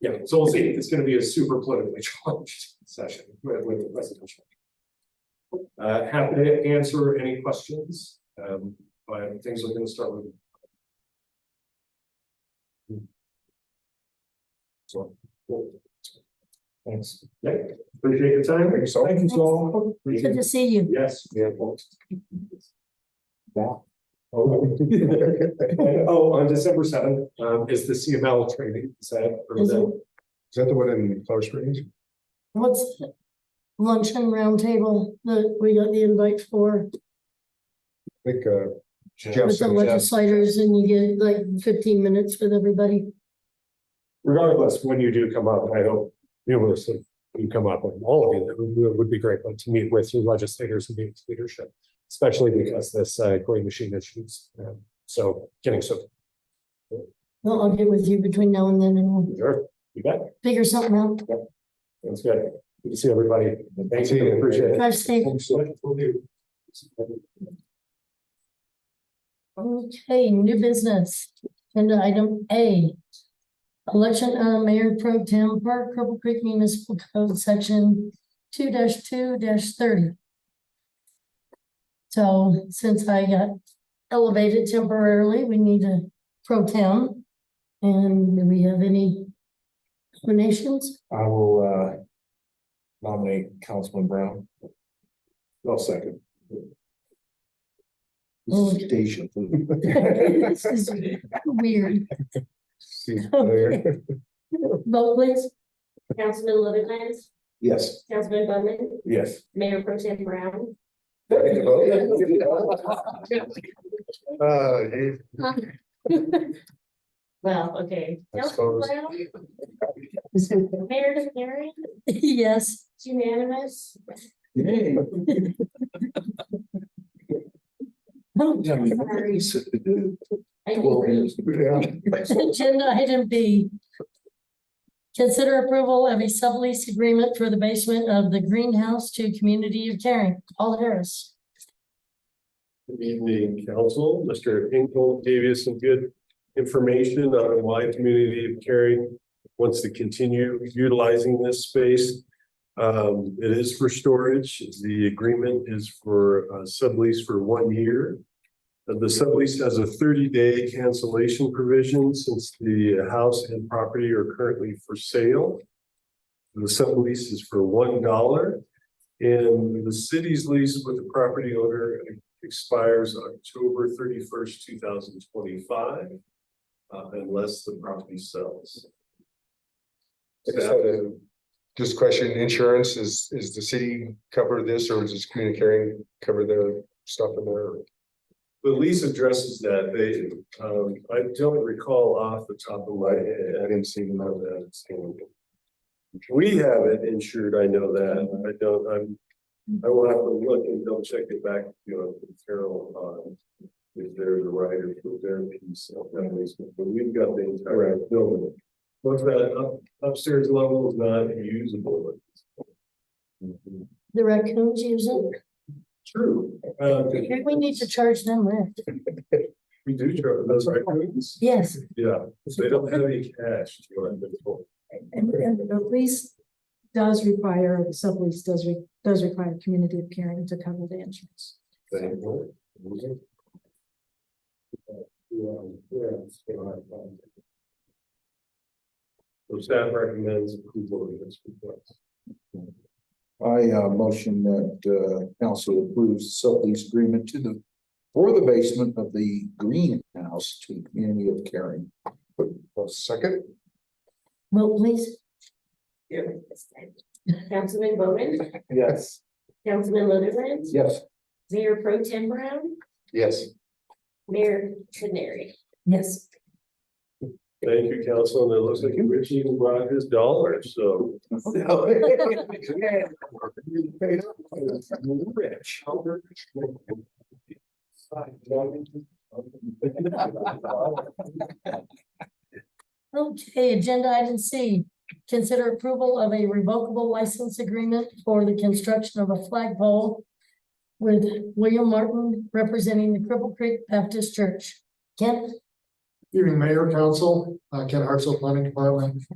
Yeah, so we'll see, it's gonna be a super politically challenged session with with the presidential. Uh, happy to answer any questions, um, but things are gonna start with. So. cool. Thanks. Yeah, appreciate your time. Thank you so Thank you so much. Good to see you. Yes. Yeah, well, that. Oh, And, oh, on December seventh, um, is the CML training, is that? or is Is that- it Is that the one in Color Springs? What's the luncheon roundtable that we got the invite for I think, uh. Jeff with the said Jeff- legislators and you get like fifteen minutes with everybody? regardless, when you do come up, I hope numerously you come up with all of you, that would, would be great, but to meet with your legislators and meet with leadership. Especially because this uh growing machine issues, um, so getting so, No, I'll get with you between now and then and we'll sure, you bet, figure something out. that's good. Good to see everybody, thank you, appreciate it. Drive safe. Thanks so much. Will do. Okay, new business. Agenda item A. Election of Mayor Pro Tem for Cripple Creek Municipal Code Section two two thirty. So since I got elevated temporarily, we need a pro tem. And do we have any nominations? I will, uh, nominate Councilman Brown. I'll second. Okay. Station. This is Weird. See you later. Vote please. Councilman Loveenheim, Yes, Councilman Bowman, yes. Mayor Pro Tem Brown. Uh, eh, Well, okay. I Councilman suppose. Brown, Mayor DeCarry, Yes, it's unanimous. Oh, Sorry. I agree. Agenda item B. Consider approval of a sublease agreement for the basement of the greenhouse to community of caring, Paul Harris. Good evening, council, Mr. Hinkle gave you some good information on why community of caring wants to continue utilizing this space. Um, it is for storage, the agreement is for uh, sublease for one year. Uh, The sublease has a thirty-day cancellation provision since the house and property are currently for sale. The sublease is for one dollar. And the city's lease with the property owner expires October thirty-first, two thousand twenty-five. Uh, unless the property sells. just had a- Just question, insurance, is, is the city cover this or is this community caring cover their stuff in there? The lease addresses that, they, um, I don't recall off the top of my head, I didn't see them on that. so. We have it insured, I know that, I don't, I'm, I will have to look and double check it back, you know, with Carol on. If there's a rider for their piece of that basement, but we've got the entire building. What's that up- upstairs level is not usable. The raccoons use it. True. Uh, We need to charge them rent. we do, charge those raccoons. Yes, Yeah, so they don't have any cash to go into the. And, and the lease does require, or the sublease does, re- does require community of caring to cover the insurance. They won't. So staff recommends approval of this request. I uh motion that uh council approves sublease agreement to the. For the basement of the greenhouse to the community of caring. A second? vote please. Councilman Bowman, Yes. Councilman Loveenheim, Yes. Mayor Pro Tem Brown, Yes. Mayor Tenary. Yes. Thank you, council, and it looks like Rich even brought his dollar, so. Rich. Okay, agenda item C. Consider approval of a revocable license agreement for the construction of a flagpole with William Martin representing the Cripple Creek Baptist Church. Kent? Evening, Mayor, Council, uh, Ken Hartzell, Planning Department.